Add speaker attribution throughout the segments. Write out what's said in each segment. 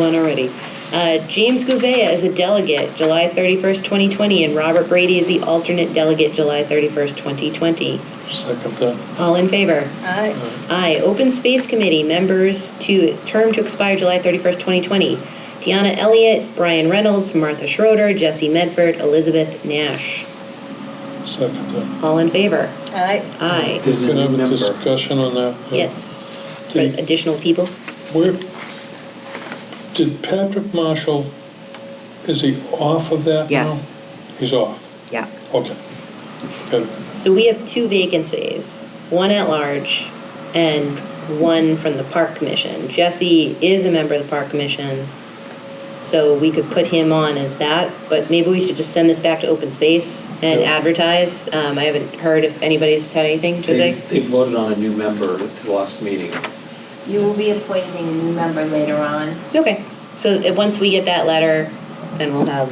Speaker 1: One already. Uh, James Gouveia is a delegate, July 31st, 2020, and Robert Brady is the alternate delegate, July 31st, 2020.
Speaker 2: Second that.
Speaker 1: All in favor?
Speaker 3: Aye.
Speaker 1: Aye. Open Space Committee, members to, term to expire July 31st, 2020. Deanna Elliott, Brian Reynolds, Martha Schroeder, Jesse Medford, Elizabeth Nash.
Speaker 2: Second that.
Speaker 1: All in favor?
Speaker 3: Aye.
Speaker 1: Aye.
Speaker 4: There's a
Speaker 2: Can I have
Speaker 4: new
Speaker 2: a
Speaker 4: member.
Speaker 2: discussion on that?
Speaker 1: Yes. For Additional people?
Speaker 2: Where, did Patrick Marshall, is he off of that now?
Speaker 5: Yes.
Speaker 2: He's off?
Speaker 5: Yeah.
Speaker 2: Okay. Got it.
Speaker 1: So we have two vacancies, one at large and one from the Park Commission. Jesse is a member of the Park Commission, so we could put him on as that, but maybe we should just send this back to open space and
Speaker 2: Yeah.
Speaker 1: advertise. Um, I haven't heard if anybody's had anything,
Speaker 4: They
Speaker 1: Jose?
Speaker 4: they voted on a new member at the last meeting.
Speaker 6: You will be appointing a new member later on,
Speaker 1: Okay, so uh, once we get that letter, then we'll have,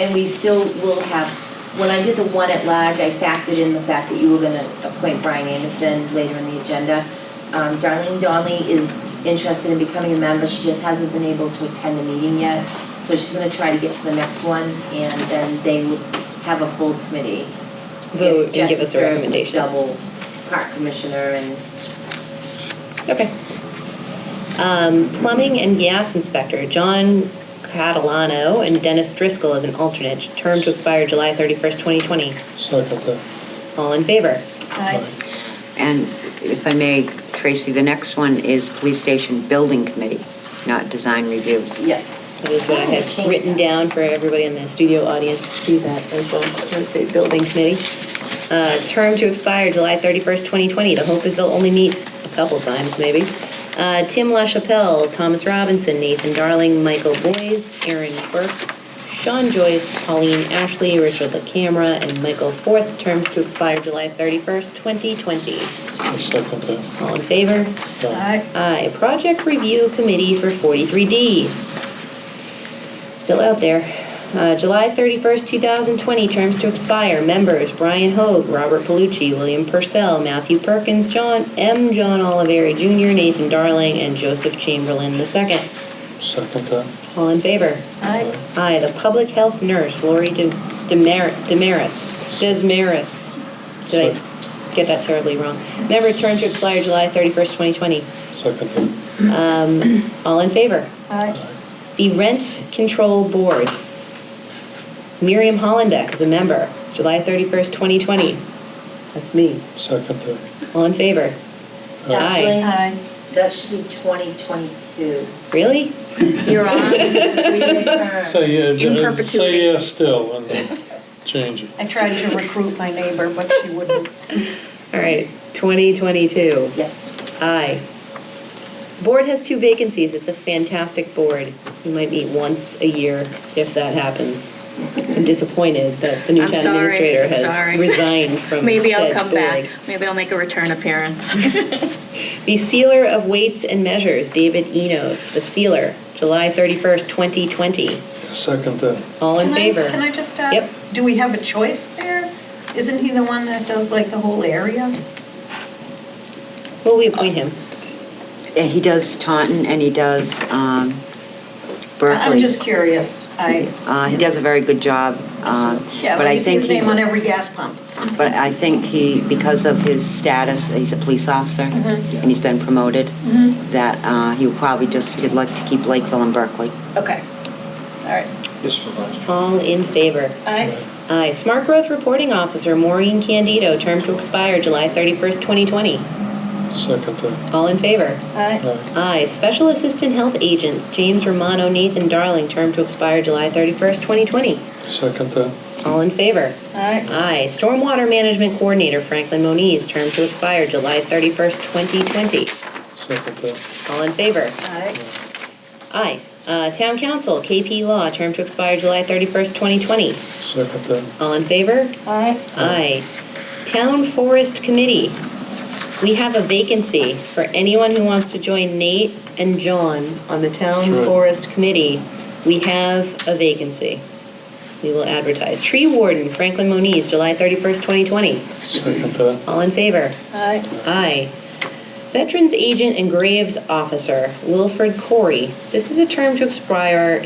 Speaker 6: and we still will have, when I did the one at large, I factored in the fact that you were gonna appoint Brian Anderson later in the agenda. Um, Darlene Donnelly is interested in becoming a member, she just hasn't been able to attend a meeting yet, so she's gonna try to get to the next one, and then they will have a full committee.
Speaker 1: Vote and give us a
Speaker 6: Jessica is
Speaker 1: recommendation.
Speaker 6: Double park commissioner and
Speaker 1: okay. Um, plumbing and gas inspector, John Catalano and Dennis Driscoll as an alternate, term to expire July 31st, 2020.
Speaker 2: Second that.
Speaker 1: All in favor?
Speaker 3: Aye.
Speaker 5: And if I may, Tracy, the next one is Police Station Building Committee, not Design Review.
Speaker 6: Yeah.
Speaker 1: That is what I had written down for everybody in the studio audience to see that as well. Let's say building committee. Uh, Term to expire July 31st, 2020. The hope is they'll only meet a couple times, maybe. Uh, Tim LaChapelle, Thomas Robinson, Nathan Darling, Michael Boyes, Aaron Burke, Sean Joyce, Colleen Ashley, Richard LaCamera, and Michael Forth. Terms to expire July 31st, 2020.
Speaker 2: I Second that.
Speaker 1: All in favor?
Speaker 2: Aye.
Speaker 1: Aye, Project Review Committee for 43D. Still out there. Uh, July 31st, 2020, terms to expire. Members, Brian Hoag, Robert Palucci, William Purcell, Matthew Perkins, John, M. John Oliveri Jr., Nathan Darling, and Joseph Chamberlain II.
Speaker 2: Second that.
Speaker 1: All in favor?
Speaker 3: Aye.
Speaker 1: Aye, the Public Health Nurse, Lori Des- Demer- Demaris, Desmaris. Did I get that terribly wrong? Member, term to expire July 31st, 2020.
Speaker 2: Second that.
Speaker 1: All in favor?
Speaker 3: Aye.
Speaker 1: The Rent Control Board. Miriam Hollenbeck is a member, July 31st, 2020. That's me.
Speaker 2: Second that.
Speaker 1: All in favor?
Speaker 2: Aye.
Speaker 6: Actually,
Speaker 3: Aye.
Speaker 6: that should be twenty twenty-two.
Speaker 1: Really?
Speaker 6: You're on, three-year term.
Speaker 2: Say,
Speaker 3: In
Speaker 2: yeah,
Speaker 3: perpetuity.
Speaker 2: say yes still and change it.
Speaker 3: I tried to recruit my neighbor, but she wouldn't.
Speaker 1: All right, 2022.
Speaker 6: Yeah.
Speaker 1: Aye. Board has two vacancies. It's a fantastic board. You might meet once a year if that happens. I'm disappointed that the new
Speaker 7: I'm
Speaker 1: town
Speaker 7: sorry,
Speaker 1: administrator
Speaker 7: I'm
Speaker 1: has
Speaker 7: sorry.
Speaker 1: resigned from
Speaker 7: Maybe I'll
Speaker 1: said
Speaker 7: come
Speaker 1: board.
Speaker 7: back. Maybe I'll make a return appearance.
Speaker 1: The Sealer of Weights and Measures, David Enos, the Sealer, July 31st, 2020.
Speaker 2: Second that.
Speaker 1: All in
Speaker 3: Can I-
Speaker 1: favor?
Speaker 3: Can I just ask, do we have a choice there? Isn't he the one that does like the whole area?
Speaker 1: Well, we appoint him.
Speaker 5: And he does Taunton and he does um, Berkeley.
Speaker 3: I'm just curious. I,
Speaker 5: Uh, He does a very good job. uh,
Speaker 3: yeah,
Speaker 5: but I
Speaker 3: we see
Speaker 5: think
Speaker 3: his name
Speaker 5: he's-
Speaker 3: on every gas pump.
Speaker 5: But I think he, because of his status, he's a police officer
Speaker 3: Mm-hmm.
Speaker 5: and he's been promoted, that uh, he probably just, he'd like to keep Lakeville and Berkeley.
Speaker 3: Okay. All right.
Speaker 1: All in favor?
Speaker 3: Aye.
Speaker 1: Aye. Smart Growth Reporting Officer Maureen Candido, term to expire July 31st, 2020.
Speaker 2: Second that.
Speaker 1: All in favor?
Speaker 3: Aye.
Speaker 2: Aye.
Speaker 1: Aye. Special Assistant Health Agents James Romano, Nathan Darling, term to expire July 31st, 2020.
Speaker 2: Second that.
Speaker 1: All in favor?
Speaker 3: Aye.
Speaker 1: Aye. Stormwater Management Coordinator Franklin Moniz, term to expire July 31st, 2020.
Speaker 2: Second that.
Speaker 1: All in favor?
Speaker 3: Aye.
Speaker 1: Aye. Uh, Town Council KP Law, term to expire July 31st, 2020.
Speaker 2: Second that.
Speaker 1: All in favor?
Speaker 3: Aye.
Speaker 1: Aye. Town Forest Committee, we have a vacancy for anyone who wants to join Nate and John on the Town
Speaker 2: That's right.
Speaker 1: Forest Committee. We have a vacancy. We will advertise. Tree Warden, Franklin Moniz, July 31st, 2020.
Speaker 2: Second that.
Speaker 1: All in favor?
Speaker 3: Aye.
Speaker 1: Aye. Veterans Agent and Graves Officer, Wilfred Corey. This is a term to expire